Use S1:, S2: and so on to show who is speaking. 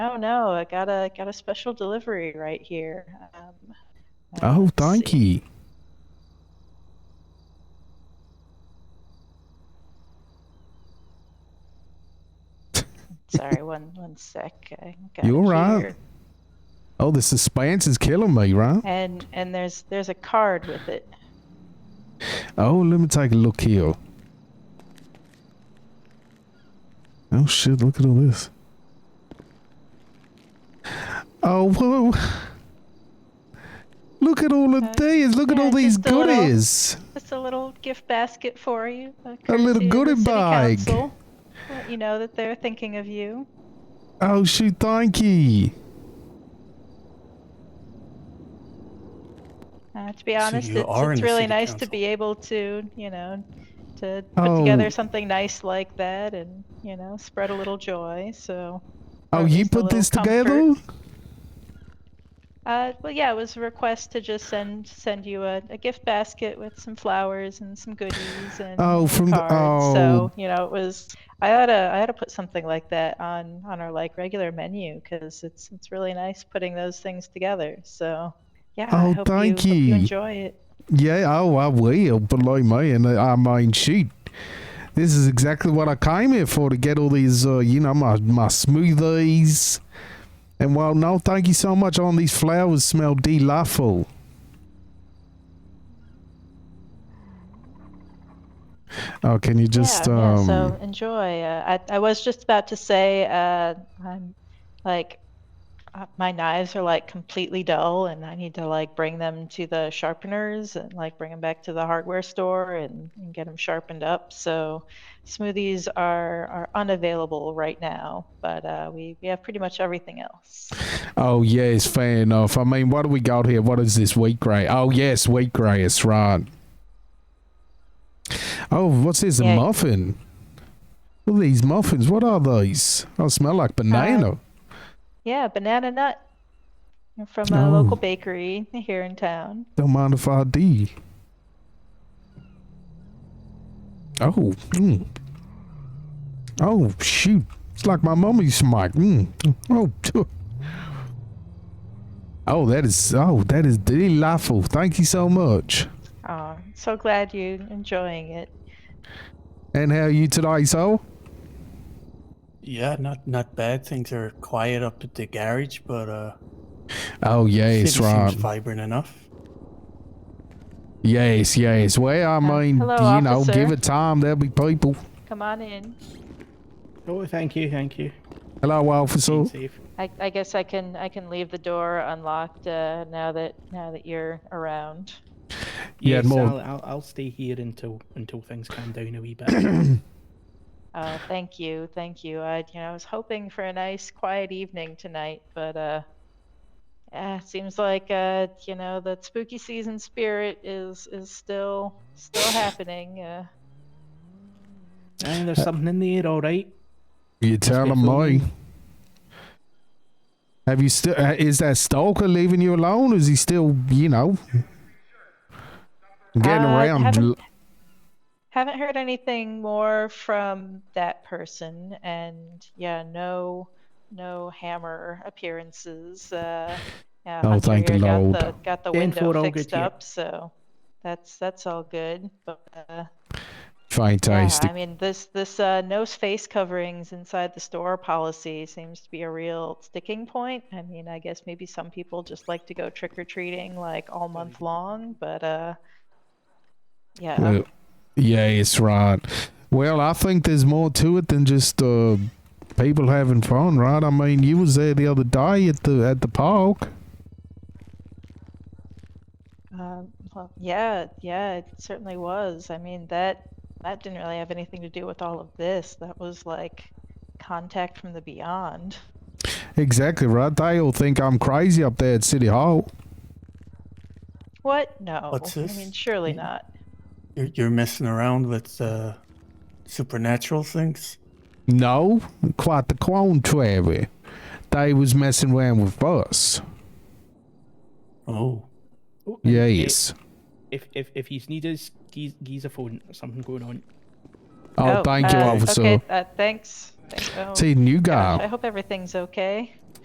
S1: Oh no, I got a got a special delivery right here. Um,
S2: Oh,
S1: let's
S2: thank
S1: see.
S2: you.
S1: Sorry, one one sec. I got
S2: You
S1: it
S2: alright?
S1: here.
S2: Oh, the suspense is killing me, right?
S1: And and there's there's a card with it.
S2: Oh, let me take a look here. Oh shit! Look at all this. Oh whoa! Look at all of
S1: Uh,
S2: these. Look at
S1: yeah,
S2: all these
S1: just a little-
S2: goodies.
S1: Just a little gift basket for you.
S2: A little
S1: courtesy of the
S2: goodie
S1: city
S2: bag.
S1: council. Let you know that they're thinking of you.
S2: Oh shoot! Thank you.
S1: Uh, to be honest,
S3: you
S1: it's,
S3: are in
S1: it's
S3: the
S1: really
S3: city
S1: nice to
S3: council.
S1: be able to, you know, to put
S2: Oh.
S1: together something nice like that and, you know, spread a little joy. So,
S2: Oh,
S1: Or
S2: you
S1: just a
S2: put
S1: little
S2: this
S1: comfort.
S2: together?
S1: uh, well, yeah, it was a request to just send send you a, a gift basket with some flowers and some goodies and
S2: Oh,
S1: a
S2: from the- oh.
S1: card. So, you know, it was. I ought to I ought to put something like that on on our like regular menu because it's it's really nice putting those things together. So, yeah,
S2: Oh,
S1: I hope
S2: thank
S1: you, hope
S2: you.
S1: you enjoy it.
S2: Yeah. Oh, I will. But like me, and uh, I mean, shoot, this is exactly what I came here for—to get all these, uh, you know, my my smoothies. And well, no, thank you so much. On these flowers smell delightful. Oh, can you just
S1: yeah,
S2: um?
S1: yeah, so enjoy. Uh, I I was just about to say uh, I'm like uh, my knives are like completely dull, and I need to like bring them to the sharpeners and like bring them back to the hardware store and, and get them sharpened up. So smoothies are are unavailable right now, but uh, we we have pretty much everything else.
S2: Oh yes, fair enough. I mean, what do we got here? What is this wheatgrass? Oh yes, wheatgrass, right? Oh, what's this? A
S1: Yeah.
S2: muffin? Well, these muffins, what are these? Oh, smell like banana.
S1: Yeah, banana nut from a
S2: Oh.
S1: local bakery here in town.
S2: Don't mind if I do. Oh, mm. oh shoot! It's like my mum used to make. Mm. Oh, tch. oh, that is oh, that is delightful. Thank you so much.
S1: Oh, so glad you're enjoying it.
S2: And how are you today, so?
S3: Yeah, not not bad. Things are quiet up at the garage, but uh,
S2: Oh yes,
S3: city
S2: right.
S3: seems vibrant enough.
S2: Yes, yes. Well, I mean,
S1: Uh, hello,
S2: you know,
S1: officer.
S2: give it time. There'll be people.
S1: Come on in.
S4: Oh, thank you, thank you.
S2: Hello, officer.
S4: Being safe.
S1: I, I guess I can I can leave the door unlocked uh, now that now that you're around.
S2: Yeah,
S4: yes,
S2: more-
S4: I'll, I'll, I'll stay here until until things calm down a wee bit.
S1: Uh, thank you, thank you. I you know I was hoping for a nice quiet evening tonight, but uh, yeah, it seems like uh you know that spooky season spirit is is still still happening. Uh,
S4: and
S2: Uh,
S4: there's something in the air, all right.
S2: You're telling me.
S4: Respectfully.
S2: Have you still? uh, Is that stalker leaving you alone? Is he still, you know, getting
S1: Uh,
S2: around?
S1: haven't- haven't heard anything more from that person, and yeah, no no hammer appearances. Uh, yeah,
S2: Oh,
S1: Hunter
S2: thank the
S1: here got
S2: Lord.
S1: the got the
S4: Then
S1: window
S4: for all
S1: fixed
S4: good, yeah.
S1: up, so that's that's all good. But uh, yeah,
S2: Fantastic.
S1: I mean this this uh, no face coverings inside the store policy seems to be a real sticking point. I mean, I guess maybe some people just like to go trick or treating like all month long, but uh, yeah,
S2: Uh, yeah, it's right. Well, I think there's more to it than just uh, people having fun, right? I mean, you was there the other day at the at the park.
S1: Um, well, yeah, yeah, it certainly was. I mean, that that didn't really have anything to do with all of this. That was like contact from the beyond.
S2: Exactly right. They'll think I'm crazy up there at City Hall.
S1: What? No.
S3: What's
S1: I mean,
S3: this?
S1: surely not.
S3: You're you're messing around with uh, supernatural things.
S2: No, quite the contrary. They was messing around with us.
S3: Oh,
S4: Oh, and
S2: Yes.
S4: If if if he's needed, he's he's a phone. There's something going on.
S2: Oh, thank you,
S1: uh,
S2: officer.
S1: Okay, uh, thanks. Thank- oh,
S2: See, new
S1: gosh, I
S2: guy.
S1: hope everything's okay.